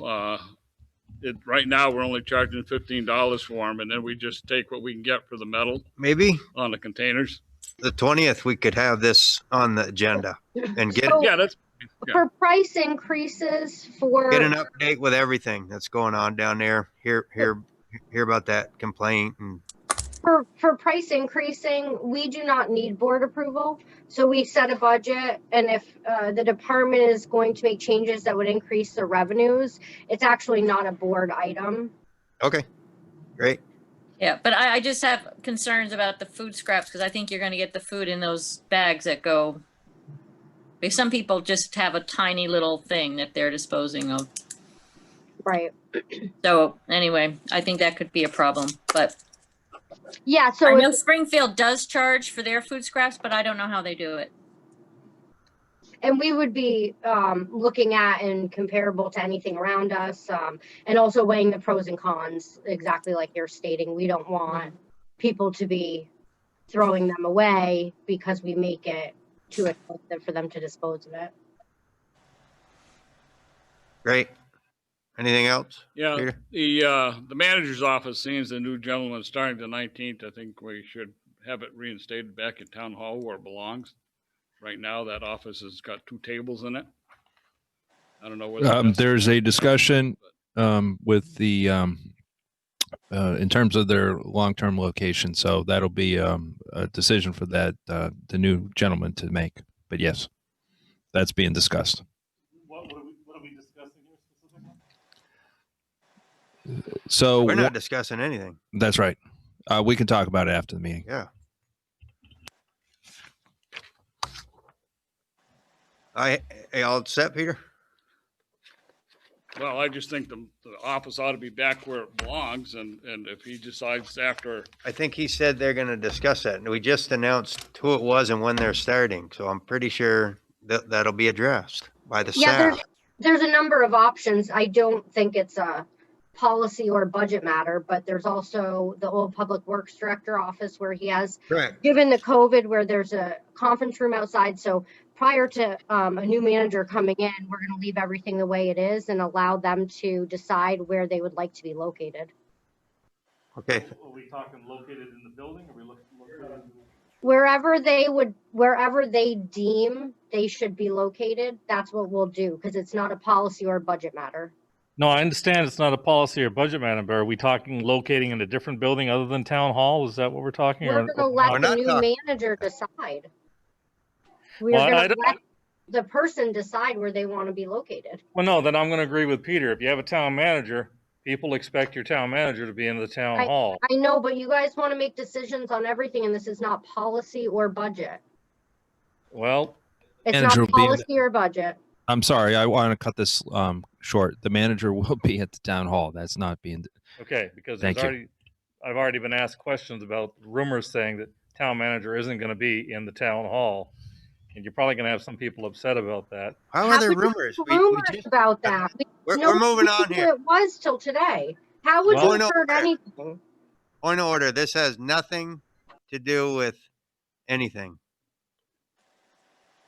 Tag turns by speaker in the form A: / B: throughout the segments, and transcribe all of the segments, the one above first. A: uh, it, right now, we're only charging fifteen dollars for them, and then we just take what we can get for the metal
B: Maybe
A: on the containers.
B: the twentieth, we could have this on the agenda and get,
A: Yeah, that's, yeah.
C: For price increases for,
B: get an update with everything that's going on down there. Hear, hear, hear about that complaint and
C: for, for price increasing, we do not need board approval. So we set a budget and if, uh, the department is going to make changes that would increase their revenues, it's actually not a board item.
B: Okay, great.
D: Yeah, but I, I just have concerns about the food scraps because I think you're going to get the food in those bags that go. Because some people just have a tiny little thing that they're disposing of.
C: Right.
D: So anyway, I think that could be a problem. But
C: Yeah,
D: I
C: so
D: know
C: it's,
D: Springfield does charge for their food scraps, but I don't know how they do it.
C: and we would be, um, looking at and comparable to anything around us, um, and also weighing the pros and cons, exactly like you're stating. We don't want people to be throwing them away because we make it too expensive for them to dispose of it.
B: Great. Anything else?
A: yeah,
B: Peter?
A: the, uh, the manager's office seems the new gentleman starting the nineteenth. I think we should have it reinstated back at town hall where it belongs. Right now, that office has got two tables in it. I don't know whether.
E: Um,
A: that's-
E: there's a discussion um, with the um, uh, in terms of their long-term location, so that'll be um, a decision for that uh, the new gentleman to make. But yes, that's being discussed.
F: What, what are we, what are we discussing here specifically?
E: So
B: We're not discussing anything.
E: that's right. Uh, we can talk about it after the meeting.
B: Yeah. I, I all set, Peter?
A: Well, I just think the, the office ought to be back where it belongs and, and if he decides after,
B: I think he said they're gonna discuss that, and we just announced who it was and when they're starting, so I'm pretty sure that, that'll be addressed by the
C: Yeah,
B: staff.
C: there's, there's a number of options. I don't think it's a policy or budget matter, but there's also the old Public Works Director office where he has
B: Correct.
C: given the COVID where there's a conference room outside, so prior to um, a new manager coming in, we're gonna leave everything the way it is and allow them to decide where they would like to be located.
B: Okay,
F: Are we talking located in the building? Are we looking, located in the?
C: Wherever they would, wherever they deem they should be located, that's what we'll do, because it's not a policy or a budget matter.
F: No, I understand it's not a policy or budget, Madam Bear. Are we talking locating in a different building other than town hall? Is that what we're talking?
C: We're
F: or-
C: gonna
B: We're
C: let the
B: not
C: new
B: talking-
C: manager decide. We're
F: Well, I
C: gonna
F: don't-
C: let the person decide where they wanna be located.
F: Well, no, then I'm gonna agree with Peter. If you have a town manager, people expect your town manager to be in the town
C: I-
F: hall.
C: I know, but you guys wanna make decisions on everything, and this is not policy or budget.
F: Well,
C: It's not
E: Manager will be in
C: policy or budget.
E: I'm sorry, I want to cut this um, short. The manager will be at the town hall. That's not being.
F: okay, because there's
E: Thank you.
F: already, I've already been asked questions about rumors saying that town manager isn't gonna be in the town hall. And you're probably gonna have some people upset about that.
B: how
C: How
B: are there
C: could you
B: rumors? We- we
C: Rumors
B: just-
C: about that. We-
B: We're,
C: no
B: we're
C: one
B: moving
C: knew
B: on
C: who
B: here.
C: It was till today. How would
F: Well-
C: you have heard
B: Well, no,
C: anything?
B: Point of order, this has nothing to do with anything.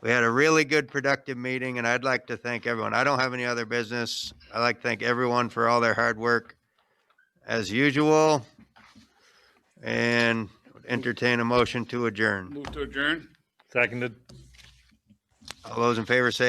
B: We had a really good productive meeting and I'd like to thank everyone. I don't have any other business. I'd like to thank everyone for all their hard work as usual. And entertain a motion to adjourn.
A: move to adjourn.
F: Seconded.
B: All those in favor say